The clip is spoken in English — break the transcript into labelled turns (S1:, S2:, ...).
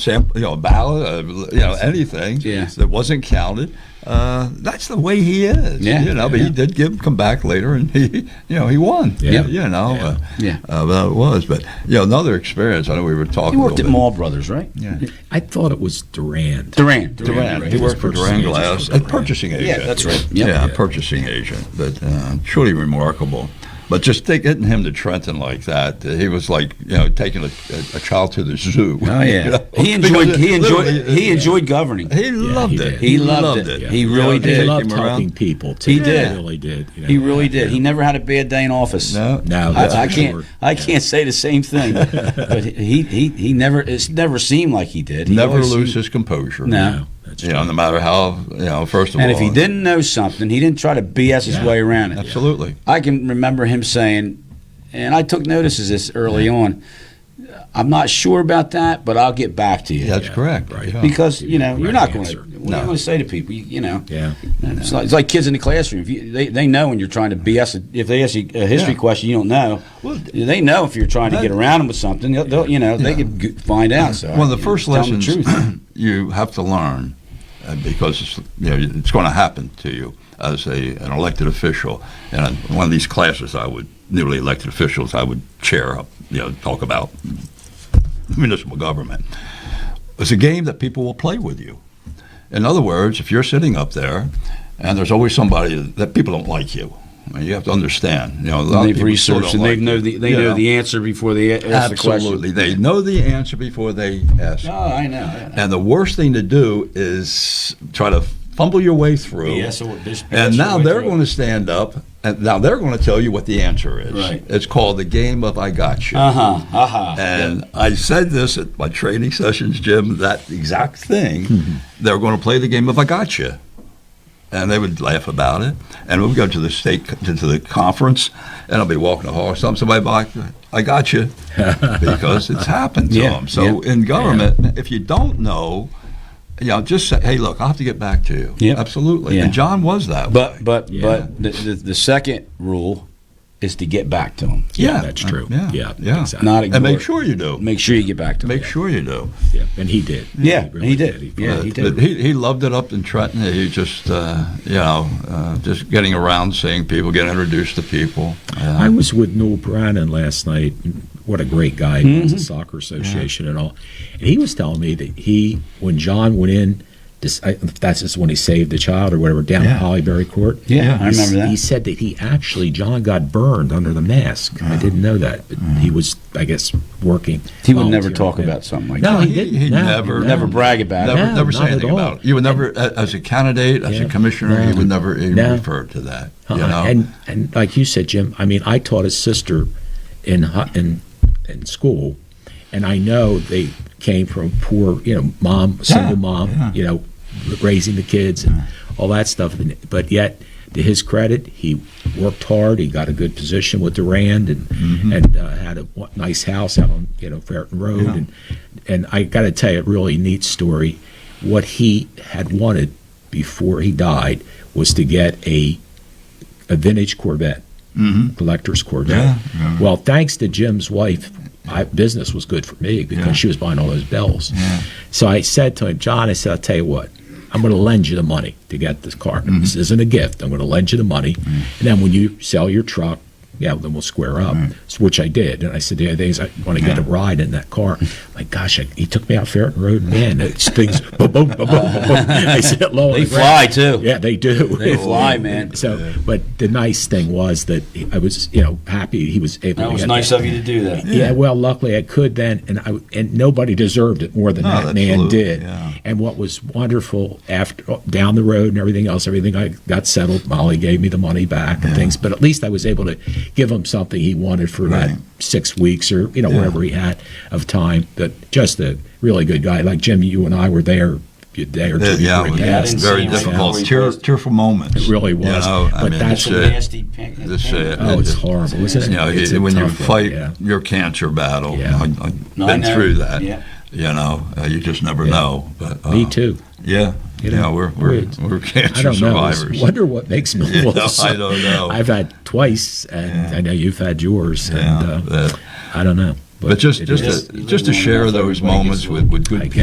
S1: sample, you know, ballot, uh, you know, anything
S2: Yeah.
S1: that wasn't counted. Uh, that's the way he is.
S2: Yeah,
S1: You know, but
S2: yeah.
S1: he did give come back later, and he, you know, he won.
S3: Yeah.
S1: You know. Uh,
S2: Yeah.
S1: Uh, well, it was, but you know, another experience. I know we were talking.
S2: He worked
S1: a
S2: at
S1: little
S2: Mall Brothers, right?
S1: bit. Yeah.
S3: I thought it was Durand.
S2: Duran.
S1: Duran. He
S3: He was
S1: worked for Duran
S3: purchasing agent
S1: Glass,
S3: for
S1: a
S3: Duran.
S1: purchasing agent.
S2: that's right.
S1: Yeah,
S2: Yep.
S3: Yeah.
S1: purchasing agent, but uh, truly remarkable. But just take, getting him to Trenton like that, uh, he was like you know taking a, a, a child to the zoo.
S2: Oh
S1: You
S2: yeah.
S1: know?
S2: He enjoyed.
S1: Because
S2: He
S1: it
S2: enjoyed.
S1: literally-
S2: He enjoyed governing.
S1: He loved
S3: he
S1: it.
S3: did.
S2: He loved it. He really
S1: You know,
S2: did.
S3: He
S1: take
S3: loved
S1: him
S3: talking
S1: around.
S3: people. Too.
S2: He did.
S3: He really did. you know.
S2: He really did. He never had a bad day in office.
S1: No,
S3: No,
S2: I,
S3: that's
S2: I
S3: for
S2: can't.
S3: sure.
S2: I can't say the same thing. but he, he, he never. It's never seemed like he did. He
S1: never
S2: always
S1: lose
S2: seemed-
S1: his composure.
S2: No.
S3: No, that's
S1: You
S3: true.
S1: know, no matter how you know. First of
S2: And
S1: all,
S2: if he didn't know something, he didn't try to BS his
S3: Yeah.
S2: way around it.
S1: absolutely.
S2: I can remember him saying, and I took notice of this early on. I'm not sure about that, but I'll get back to you.
S1: That's
S3: Yeah,
S1: correct.
S3: right.
S1: Yeah.
S2: Because
S3: Give
S2: you
S3: you
S2: know
S3: the
S2: you're
S3: right
S2: not going to.
S3: answer.
S2: What are you going to say to people? You, you know,
S3: Yeah.
S2: It's, like, it's like kids in the classroom. If you, they they know when you're trying to BS. a- If they ask you a history
S1: Yeah.
S2: question, you don't know.
S1: Well,
S2: they know if you're trying to
S1: that-
S2: get around them with something. They'll, they'll, you know, they can g- find out. So
S1: One of the
S2: you
S1: first
S2: tell 'em
S1: lessons
S2: The truth.
S1: you have to learn, uh, because it's, you know it's going to happen to you as a an elected official. And in one of these classes, I would newly elected officials, I would chair up, you know, talk about municipal government. It's a game that people will play with you. In other words, if you're sitting up there, and there's always somebody that people don't like you. I mean, you have to understand. You know, a lot of
S2: they've
S1: people still
S2: researched
S1: don't
S2: and
S1: like
S2: they know
S1: you,
S2: the they
S1: you
S2: know
S1: know.
S2: the answer before they ask the
S1: Absolutely,
S2: question.
S1: they know the answer before they ask.
S2: No, I know. I know.
S1: And the worst thing to do is try to fumble your way through.
S2: BS or bish-
S1: and
S2: BS
S1: now
S2: your way
S1: they're
S2: through.
S1: going to stand up, and now they're going to tell you what the answer is.
S2: Right.
S1: It's called the game of I got you.
S2: Uh huh. Uh huh.
S1: And I said this at my training sessions, Jim, that exact thing.
S2: Mm-hmm.
S1: They were going to play the game of I gotcha. And they would laugh about it. And we'd go to the state, to the conference, and I'll be walking the hall or something. Somebody will be like, I got you. Because it's happened to
S2: Yeah,
S1: them. So in government, if you don't know, you know, just say, hey, look, I'll have to get back to you.
S2: Yep.
S1: Absolutely.
S2: Yeah.
S1: And John was that way.
S2: But but
S3: Yeah.
S2: but the, the the second rule is to get back to them.
S3: Yeah, that's true.
S1: Yeah.
S3: Yeah,
S1: yeah.
S3: exactly.
S2: Not
S1: And
S2: ignore.
S1: make
S2: it.
S1: sure you do.
S2: Make sure you get back to them.
S1: Make sure you do.
S3: Yeah, and he did.
S2: Yeah,
S3: really
S2: he did. Yeah,
S1: But-
S2: he did.
S1: but he, he loved it up in Trenton. He just, uh, you know, uh, just getting around, seeing people, getting introduced to people.
S3: I
S1: Uh,
S3: was with Noel Brannon last night. What a great guy! He runs the
S2: Mm-hmm.
S3: soccer association and all. And he was telling me that he, when John went in, this, I, that's just when he saved the child or whatever down
S1: Yeah.
S3: at Hollyberry Court.
S2: Yeah, I
S3: He s-
S2: remember that.
S3: He said that he actually John got burned under the mask. I didn't know that, but he was, I guess, working.
S2: Mm. He would never
S3: volunteering.
S2: talk about something like
S3: No,
S2: that.
S3: he didn't.
S1: He
S3: No,
S1: never-
S3: no.
S2: Never brag about
S1: never,
S2: it.
S3: No,
S1: never say
S3: not at
S1: anything
S3: all.
S1: about it. You would never, a- as a candidate, as
S3: Yeah.
S1: a commissioner, he
S3: No.
S1: would never even
S3: No.
S1: refer to that.
S3: Uh-uh.
S1: You know,
S3: And and like you said, Jim, I mean, I taught his sister in hu- in in school, and I know they came from poor, you know, mom, single
S1: Yeah,
S3: mom,
S1: yeah.
S3: you know, raising the kids and all that stuff. And, but yet, to his credit, he worked hard. He got a good position with Durand and and uh, had a wa- nice house out on you know Ferreton Road.
S1: Mm-hmm. Yeah.
S3: And and I got to tell you, a really neat story. What he had wanted before he died was to get a a vintage Corvette, collector's Corvette.
S1: Mm-hmm. Yeah, yeah.
S3: Well, thanks to Jim's wife, my business was good for me because
S1: Yeah.
S3: she was buying all those bells.
S1: Yeah.
S3: So I said to him, John, I said, I'll tell you what, I'm going to lend you the money to get this car.
S1: Mm-hmm.
S3: This isn't a gift. I'm going to lend you the money. And then when you sell your truck, yeah, then we'll square up, So- which I did. And I said, the other thing is I want to get a ride in that car. My gosh, I, he took me out Ferreton Road. Man, it's things, boom, boom, boom, boom, boom, boom. I sit low. on
S2: They
S3: the ground.
S2: fly too.
S3: Yeah, they do.
S2: They fly, man.
S3: So, but the nice thing was that he- I was, you know, happy he was able.
S2: That
S3: to
S2: was
S3: get
S2: nice of you to do that.
S3: Yeah. well, luckily I could then, and I and nobody deserved it more than
S1: No,
S3: that man
S1: absolutely,
S3: did.
S1: yeah.
S3: And what was wonderful after down the road and everything else, everything I got settled. Molly gave me the money back and things, but at least I was able to give him something he wanted for
S1: Right.
S3: that six weeks or you know wherever he had of time. But just a really good guy, like Jim. You and I were there. A day or two
S1: yeah, yeah,
S3: before
S1: it
S3: he
S1: was
S2: Yeah, I
S3: passed.
S2: didn't see
S1: very
S2: him right
S1: difficult.
S2: before he
S1: Tear,
S2: passed.
S1: tearful moments.
S3: It really
S1: You
S3: was.
S1: know, I
S3: But
S1: mean,
S3: that's-
S1: it's,
S2: Some
S1: uh,
S2: nasty pink.
S1: this, uh,
S3: Oh, it's
S1: It-
S3: horrible. It's,
S1: you know,
S3: it's
S1: it-
S3: a
S1: when you
S3: tough one,
S1: fight
S3: yeah.
S1: your cancer battle,
S3: Yeah.
S1: I, I've
S2: No, I
S1: been
S2: know.
S1: through that.
S2: Yeah.
S1: You know, uh, you just never know. But uh,
S3: Me too.
S1: Yeah, you
S3: You know,
S1: know, we're we're,
S3: weird.
S1: we're cancer
S3: I don't know. I
S1: survivors.
S3: wonder what makes me.
S1: Yeah,
S3: well, so-
S1: I don't know.
S3: I've had twice, and I know you've had yours.
S1: Yeah,
S3: and uh,
S1: that-
S3: I don't know.
S1: but just
S3: it
S1: just
S3: is-
S1: to,
S2: You live
S1: just to
S2: long
S1: share
S2: enough,
S1: those
S2: everybody gets
S1: moments
S2: one.
S1: with, with
S3: I
S1: good
S3: guess.
S1: people.